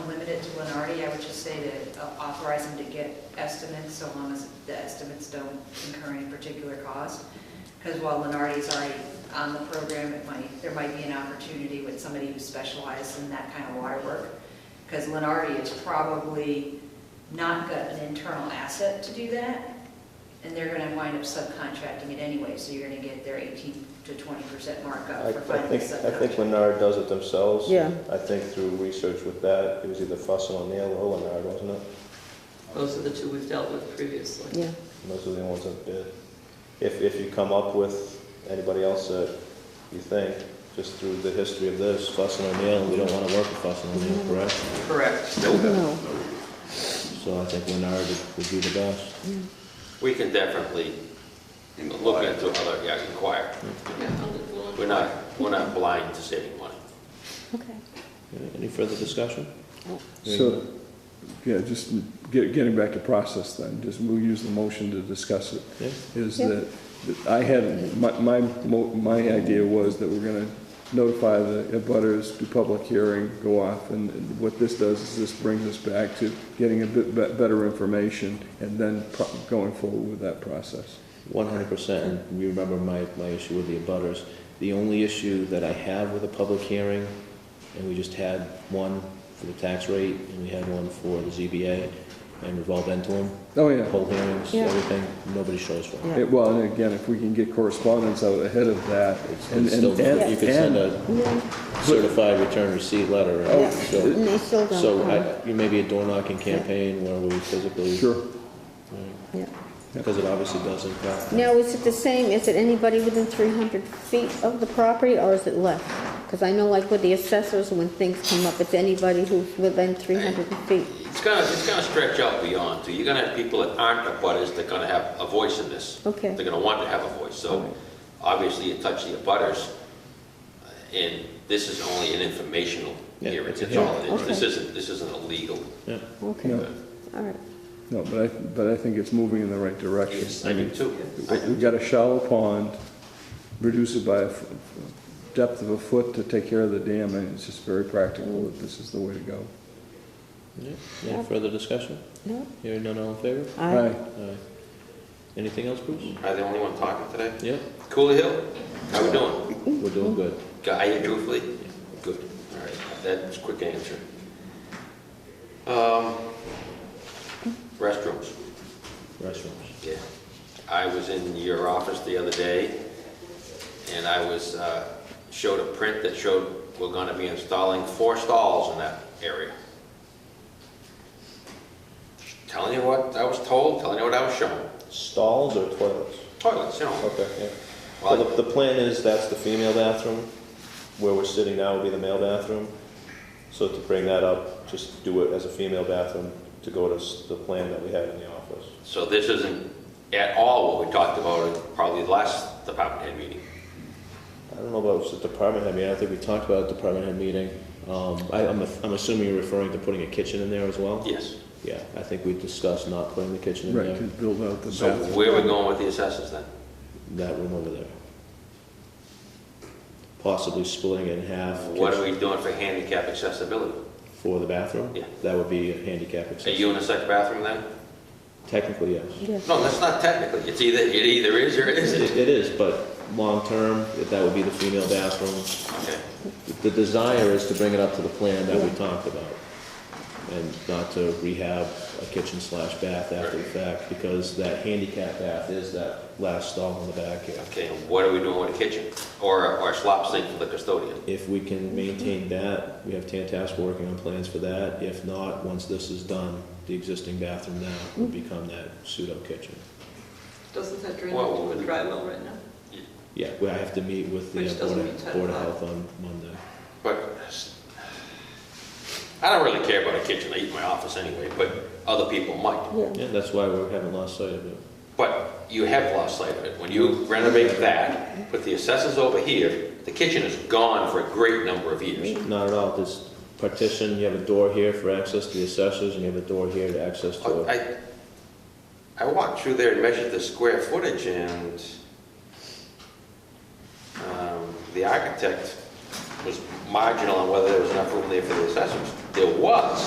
Lenardi, I would just say to uh, authorize him to get estimates, so long as the estimates don't incur any particular cost. Because while Lenardi's already on the program, it might, there might be an opportunity with somebody who specializes in that kind of water work. Because Lenardi is probably not got an internal asset to do that, and they're gonna wind up subcontracting it anyway, so you're gonna get their eighteen to twenty percent I I markup for finding think, a I think subcontractor. Lennard does it themselves. Yeah. I think through research with that, it was either Fussin O'Neill or Lennard, wasn't it? Those are the two we've dealt with previously. yeah. And Those are the ones that bid. If, if you come up with anybody else that you think, just through the history of this, Fussin O'Neill, we don't want to work with Fussin O'Neill, correct? Correct. No, So I think Lennard would- would be the best. We can definitely look into other, yeah, inquire. Yeah, I'll look along. We're not, we're not blind to saving money. okay. Any further discussion? So, yeah, just get- getting back to process then, just we'll use the motion to discuss it. Yeah. Is Yeah. that, that I had, my, my, mo- my idea was that we're gonna notify the butters, do public hearing, go off, and what this does is this brings us back to getting a bit be- better information and then pro- going forward with that process. One hundred percent, and you remember my, my issue with the abutters. The only issue that I have with a public hearing, and we just had one for the tax rate, and we had one for the ZBA, and we've all been to them, Oh, yeah. poll hearings, Yeah. everything, nobody shows for them. Yeah. It- Well, and again, if we can get correspondence out ahead of that, and, And still, and, and. you could send a No, certified return receipt letter. out, yeah, so- and they still don't. So come. I, you may be a door knocking campaign where we physically. Sure. Yeah. Because it obviously uh, does impact. Now, is it the same, is it anybody within 300 feet of the property, or is it less? Because I know like with the assessors, when things come up, it's anybody who's within 300 feet. It's gonna, it's gonna stretch out beyond, too. You're gonna have people that aren't abutters that are gonna have a voice in this. Okay. They're gonna want to have a voice, so obviously you touch the abutters, and this is only an informational Yeah, hearing, it's a that's all it is. hearing. This isn't, this isn't a legal. Yeah. Okay, No. all right. No, but I, but I think it's moving in the right direction. I do too. We- We've got a shallow pond, reduce it by a f- depth of a foot to take care of the dam, and it's just very practical that this is the way to go. Yeah. Any further discussion? No, Hearing none, all in favor? I, Aye. Aye. Anything else, Bruce? Am I the only one talking today? Yeah, Cooley Hill, how we doing? we're doing good. Got you truthfully? Good, all right, that's a quick answer. Um, Restrooms, Restrooms. yeah. I was in your office the other day, and I was, uh, showed a print that showed we're gonna be installing four stalls in that area. Telling you what I was told, telling you what I was shown, Stalls or toilets? toilets, you know. Okay, yeah. Well, Well, the, the plan is that's the female bathroom, where we're sitting now would be the male bathroom. So to bring that up, just do it as a female bathroom to go to s- the plan that we had in the office. So this isn't at all what we talked about in probably the last department head meeting. I don't know about it was the department head meeting, I think we talked about a department head meeting. Um, I, I'm, I'm assuming you're referring to putting a kitchen in there as well? Yes. Yeah, I think we discussed not putting the kitchen in Right, to there, build out the So bathroom. where are we going with the assessors then? that room over there. Possibly splitting it in half. What are kitchen- we doing for handicap accessibility? For the bathroom? Yeah. That would be a handicap A accessible. unisex bathroom then? Technically, yes. yes, No, that's not technically, it's either, it either is or it isn't. It it is, but long-term, if that would be the female bathroom. Okay, The desire is to bring it up to the plan that we talked about, and not to rehab a kitchen slash bath after the fact, because that handicap bath is that last stall in the back here. okay, and what are we doing with the kitchen? Or, or slop sink for the custodian? If we can maintain that, we have Tantasc working on plans for that. If not, once this is done, the existing bathroom now will become that pseudo kitchen. Doesn't that drain Well, into a dry well right now? Yeah, we, I have to meet with the Which uh, doesn't Board mean of, ten Board of o'clock. Health on Monday. But I don't really care about a kitchen, I eat in my office anyway, but other people might. yeah. Yeah, that's why we haven't lost sight of it. But you have lost sight of it. When you renovate that, put the assessors over here, the kitchen is gone for a great number of years. Not at all, this partition, you have a door here for access to the assessors, and you have a door here to access to it. I, I walked through there and measured the square footage and um, the architect was marginal on whether there was enough room there for the assessors. There was,